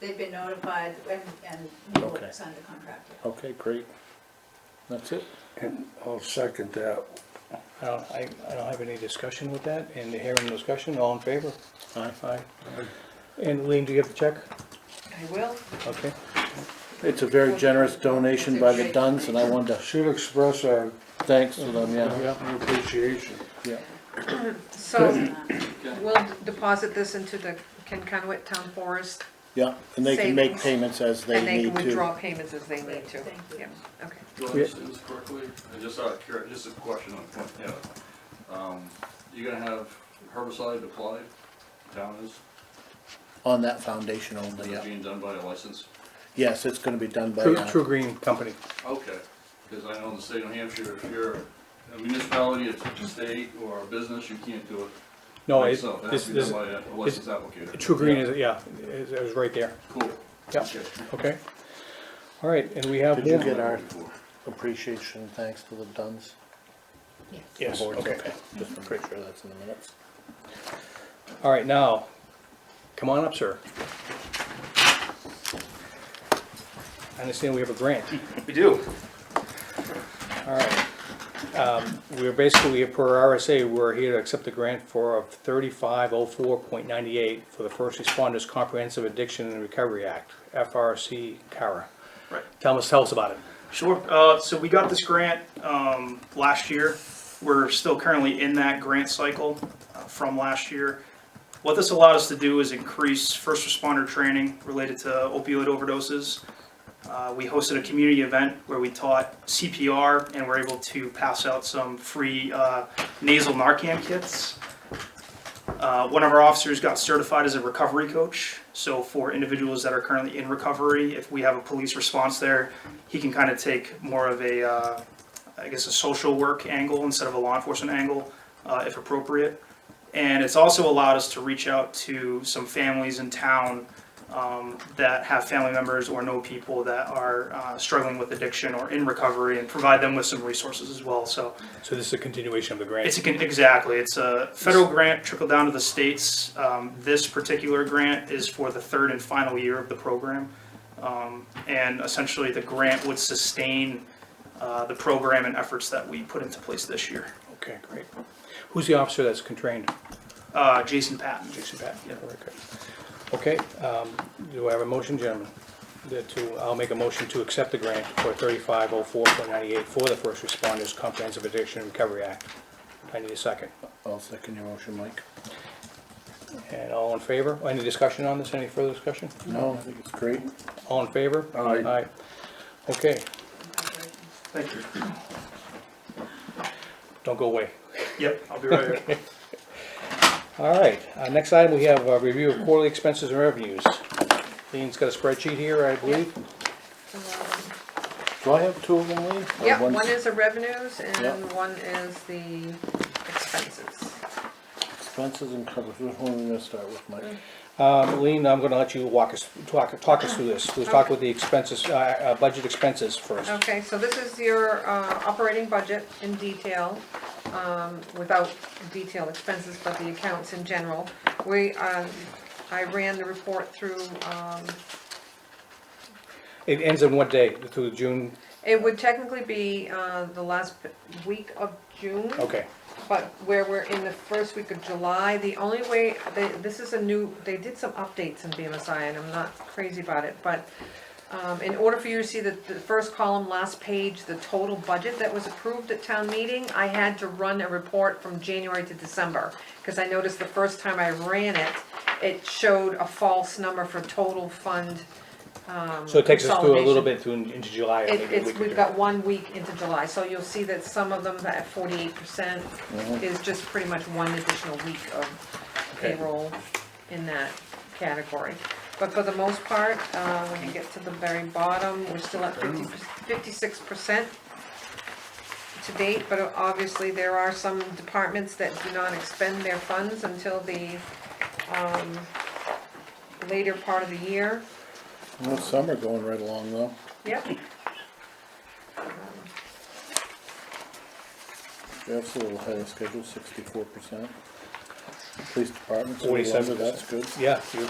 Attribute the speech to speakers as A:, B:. A: They've been notified and, and New York
B: Okay.
A: signed the contract. yeah.
B: Okay, great. That's it.
C: And I'll second that.
D: Uh, I, I don't have any discussion with that, and hearing no discussion, all in favor?
B: Aye.
D: Aye. And Lean, do you have the check?
A: I will.
D: Okay.
B: It's a very generous donation by the Duns, and I wanted to
C: Should express our
B: thanks to them, yeah,
C: appreciation.
B: yeah.
E: So we'll deposit this into the Kennewick Town Forest
B: Yeah, and they can make
E: Savings.
B: payments as they
E: and they
B: need
E: can withdraw
B: to.
E: payments as they need to.
A: Great, thank you.
E: Yeah, okay.
F: Do I
D: Yeah.
F: understand this correctly? I Just out of curi- just a question on, point, yeah. Um, You're gonna have herbicide applied, town is,
B: On that foundation only,
F: is it
B: yeah.
F: being done by a license?
B: Yes, it's gonna be done by,
D: True,
B: uh,
D: True Green Company.
F: Okay, because I know in the state of New Hampshire, if you're a municipality, it's a state or a business, you can't do it.
D: No,
F: by
D: it-
F: yourself. It
D: this,
F: has to be done
D: this,
F: by a licensed applicator.
D: True Green is, yeah, is- it was right there,
F: Cool.
D: Yeah.
F: Okay.
D: okay? All right, and we have
B: Did you
D: more-
B: get our appreciation, and thanks to the Duns?
D: Yes,
B: Boards,
D: okay.
B: Just to make sure that's in the minutes.
D: All right, now, come on up, sir. I understand we have a grant.
G: We do.
D: All right. Um, We're basically, per RSA, we're here to accept the grant for thirty-five oh four point ninety-eight for the First Responders Comprehensive Addiction and Recovery Act, FRC CARA.
G: Right.
D: Tell us, tell us about it.
G: Sure. Uh, so we got this grant um, last year. We're still currently in that grant cycle uh, from last year. What this allowed us to do is increase first responder training related to opioid overdoses. Uh, we hosted a community event where we taught CPR and were able to pass out some free uh, nasal Narcan kits. Uh, one of our officers got certified as a recovery coach. So for individuals that are currently in recovery, if we have a police response there, he can kind of take more of a, uh, I guess, a social work angle instead of a law enforcement angle, uh, if appropriate. And it's also allowed us to reach out to some families in town um, that have family members or know people that are uh, struggling with addiction or in recovery and provide them with some resources as well. So
D: So this is a continuation of the grant.
G: it's a, con- exactly, it's a federal grant trickle down to the states. Um, this particular grant is for the third and final year of the program. Um, and essentially the grant would sustain, uh, the program and efforts that we put into place this year.
D: Okay, great. Who's the officer that's contrained?
G: Uh, Jason Patton.
D: Jason Pat? Yeah, very good. Okay, um, do I have a motion, gentlemen? That to, I'll make a motion to accept the grant for thirty-five oh four point ninety-eight for the First Responders Comprehensive Addiction and Recovery Act. I need a second.
B: I'll second your motion, Mike.
D: And all in favor? Any discussion on this? Any further discussion?
B: No, I think it's great.
D: All in favor?
C: Aye.
D: Okay,
A: Congratulations.
G: Thank you.
D: don't go away.
G: Yep, I'll be right here.
D: All right, uh, next item, we have a review of quarterly expenses and revenues. Lean's got a spreadsheet here, I believe.
B: Do I have two of them, Lee? Or
E: Yeah,
B: one's-
E: one is the revenues and
B: Yep.
E: one is the expenses.
B: Expenses and covers, which one are we gonna start with,
E: Mm.
B: Mike?
D: Um, Lean, I'm gonna let you walk us, talk, talk us through this. We'll talk with the expenses, uh, uh, budget expenses first.
E: Okay, so this is your uh, operating budget in detail, um, without detailed expenses, but the accounts in general. We, um, I ran the report through, um,
D: It ends in what day? Through June?
E: it would technically be uh, the last week of June.
D: Okay,
E: But where we're in the first week of July, the only way, they, this is a new, they did some updates in BMSI, and I'm not crazy about it, but, um, in order for you to see the, the first column, last page, the total budget that was approved at town meeting, I had to run a report from January to December, cause I noticed the first time I ran it, it showed a false number for total fund, um,
D: so it takes us through a little
E: consolidation.
D: bit through into July.
E: It-
D: maybe we
E: It's,
D: could
E: we've
D: do.
E: got one week into July, so you'll see that some of them, that forty-eight percent is just pretty much one additional week of
D: Mm-hmm. Okay.
E: payroll in that category. But for the most part, uh, when you get to the very bottom, we're still at 50 56 percent to date, but obviously there are some departments that do not expend their funds until the, um, later part of the year.
B: Well, summer going right along though.
E: Yep,
B: Jeff's a little ahead of schedule, sixty-four percent. Police department's a little under,
D: 47%.
B: that's good.
D: Yeah, you-